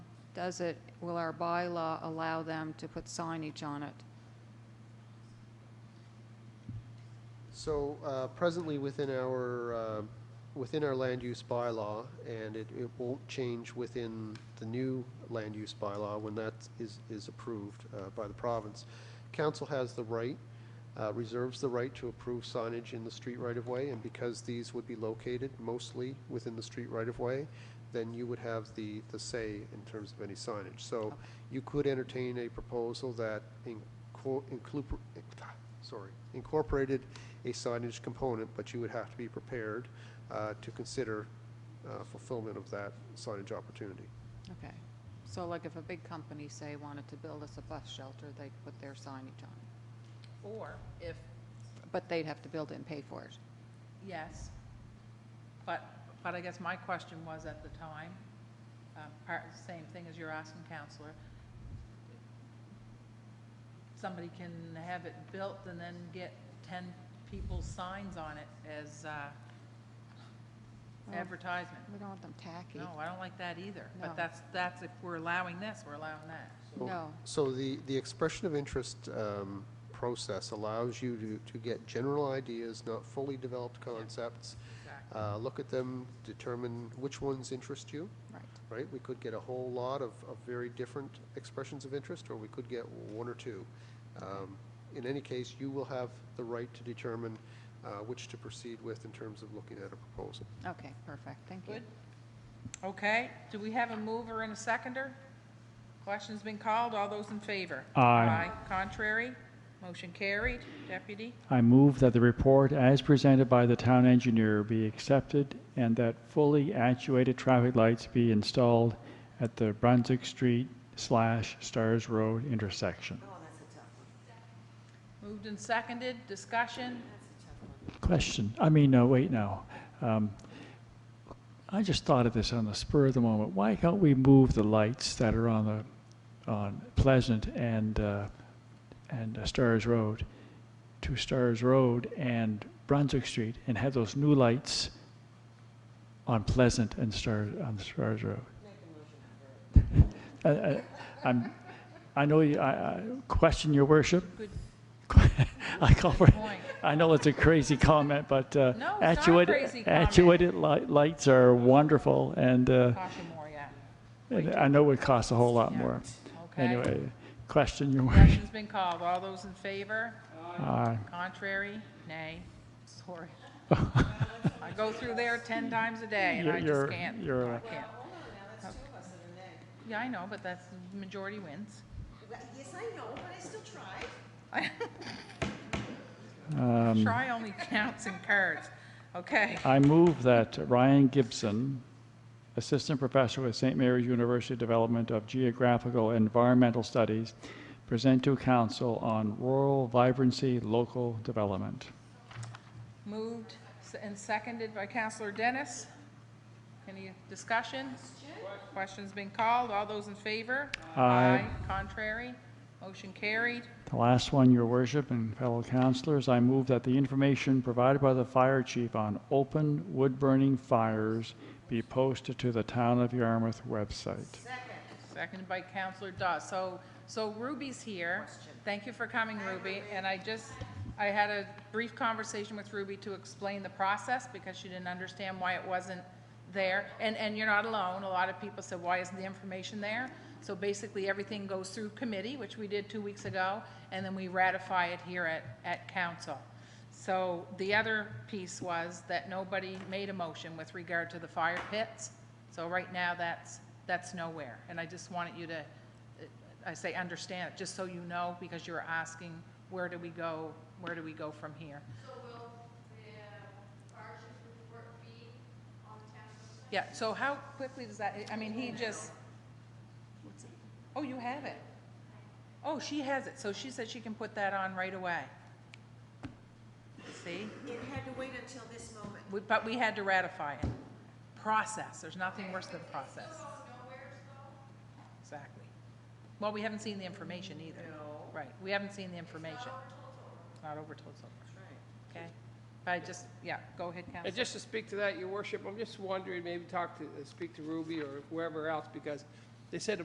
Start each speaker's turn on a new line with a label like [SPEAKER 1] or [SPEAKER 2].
[SPEAKER 1] does it, will our bylaw allow them to put signage on it?
[SPEAKER 2] So uh, presently, within our, uh, within our land use bylaw, and it, it won't change within the new land use bylaw when that is, is approved uh, by the province, council has the right, uh, reserves the right to approve signage in the street right-of-way, and because these would be located mostly within the street right-of-way, then you would have the, the say in terms of any signage. So you could entertain a proposal that inco- include, sorry, incorporated a signage component, but you would have to be prepared uh, to consider uh, fulfillment of that signage opportunity.
[SPEAKER 1] Okay. So like if a big company, say, wanted to build us a bus shelter, they'd put their signage on it.
[SPEAKER 3] Or if,
[SPEAKER 1] But they'd have to build it and pay for it.
[SPEAKER 3] yes, but, but I guess my question was at the time, um, part, same thing as you're asking, counselor. Somebody can have it built and then get ten people's signs on it as uh,
[SPEAKER 1] Well-
[SPEAKER 3] advertisement.
[SPEAKER 1] We don't want them tacky.
[SPEAKER 3] No, I don't like that either,
[SPEAKER 1] Oh. No.
[SPEAKER 3] but that's, that's, if we're allowing this, we're allowing that.
[SPEAKER 1] No.
[SPEAKER 2] So the, the expression of interest um, process allows you to, to get general ideas, not fully developed concepts.
[SPEAKER 3] Exactly.
[SPEAKER 2] uh, Look at them, determine which ones interest you,
[SPEAKER 1] Right.
[SPEAKER 2] right? We could get a whole lot of, of very different expressions of interest, or we could get one or two. Um, In any case, you will have the right to determine uh, which to proceed with in terms of looking at a proposal.
[SPEAKER 1] Okay, perfect. Thank you.
[SPEAKER 3] Good. Okay, do we have a mover and a seconder? Question's been called, all those in favor?
[SPEAKER 4] Aye.
[SPEAKER 3] Contrary? Motion carried. Deputy?
[SPEAKER 4] I move that the report as presented by the town engineer be accepted and that fully actuated traffic lights be installed at the Brunswick Street slash Stars Road intersection.
[SPEAKER 3] Moved and seconded, discussion?
[SPEAKER 4] Question, I mean, no, wait, no. Um, I just thought of this on the spur of the moment. Why can't we move the lights that are on the, on Pleasant and, uh, and uh, Stars Road to Stars Road and Brunswick Street and have those new lights on Pleasant and Stars, on Stars Road? I- I- I'm, I know you, I, I question your worship.
[SPEAKER 3] Good
[SPEAKER 4] I call for,
[SPEAKER 3] point.
[SPEAKER 4] I know it's a crazy comment, but
[SPEAKER 3] No,
[SPEAKER 4] uh,
[SPEAKER 3] it's not a
[SPEAKER 4] actuated,
[SPEAKER 3] crazy comment.
[SPEAKER 4] actuated li- lights are wonderful, and, uh,
[SPEAKER 3] Caution more, yeah.
[SPEAKER 4] and I know it costs a whole lot more.
[SPEAKER 3] Okay.
[SPEAKER 4] Anyway, question your worship.
[SPEAKER 3] Question's been called, all those in favor?
[SPEAKER 4] Aye.
[SPEAKER 3] Contrary? Nay. Sorry. I go through there 10 times a day, and I
[SPEAKER 4] You're-
[SPEAKER 3] just can't.
[SPEAKER 4] you're- uh,
[SPEAKER 3] I can't. Yeah, I know, but that's, majority wins.
[SPEAKER 5] Well, Yes, I know, but I still tried.
[SPEAKER 4] Um.
[SPEAKER 3] Try only counts and cards. Okay.
[SPEAKER 4] I move that Ryan Gibson, Assistant Professor with St. Mary's University Development of Geographical and Environmental Studies, present to council on rural vibrancy local development.
[SPEAKER 3] Moved and seconded by Counselor Dennis. Any discussion? Question's been called. All those in favor?
[SPEAKER 4] Aye.
[SPEAKER 3] Contrary? Motion carried.
[SPEAKER 4] The last one, Your Worship and fellow councilors, I move that the information provided by the fire chief on open wood-burning fires be posted to the Town of Yarmouth website.
[SPEAKER 3] Seconded by Counselor Dawes. So, so Ruby's here. Thank you for coming, Ruby. And I just, I had a brief conversation with Ruby to explain the process because she didn't understand why it wasn't there. And, and you're not alone. A lot of people said, why isn't the information there? So basically, everything goes through committee, which we did two weeks ago, and then we ratify it here at, at council. So the other piece was that nobody made a motion with regard to the fire pits. So right now, that's, that's nowhere. And I just wanted you to, uh, I say, understand it, just so you know, because you were asking, where do we go, where do we go from here?
[SPEAKER 6] So will the fire chief's report be on the town website?
[SPEAKER 3] Yeah, so how quickly does that, I mean, he just, what's it? oh, you have it. Oh, she has it, so she said she can put that on right away. See?
[SPEAKER 5] It had to wait until this moment.
[SPEAKER 3] We- But we had to ratify it. Process, there's nothing worse than process. Exactly. Well, we haven't seen the information either. Right, we haven't seen the information. It's not over till it's over. Okay, but I just, yeah, go ahead,
[SPEAKER 7] Uh,
[SPEAKER 3] Counsel.
[SPEAKER 7] Just to speak uh, to that, your worship, I'm just wondering, maybe talk to, speak to Ruby or whoever else, because they said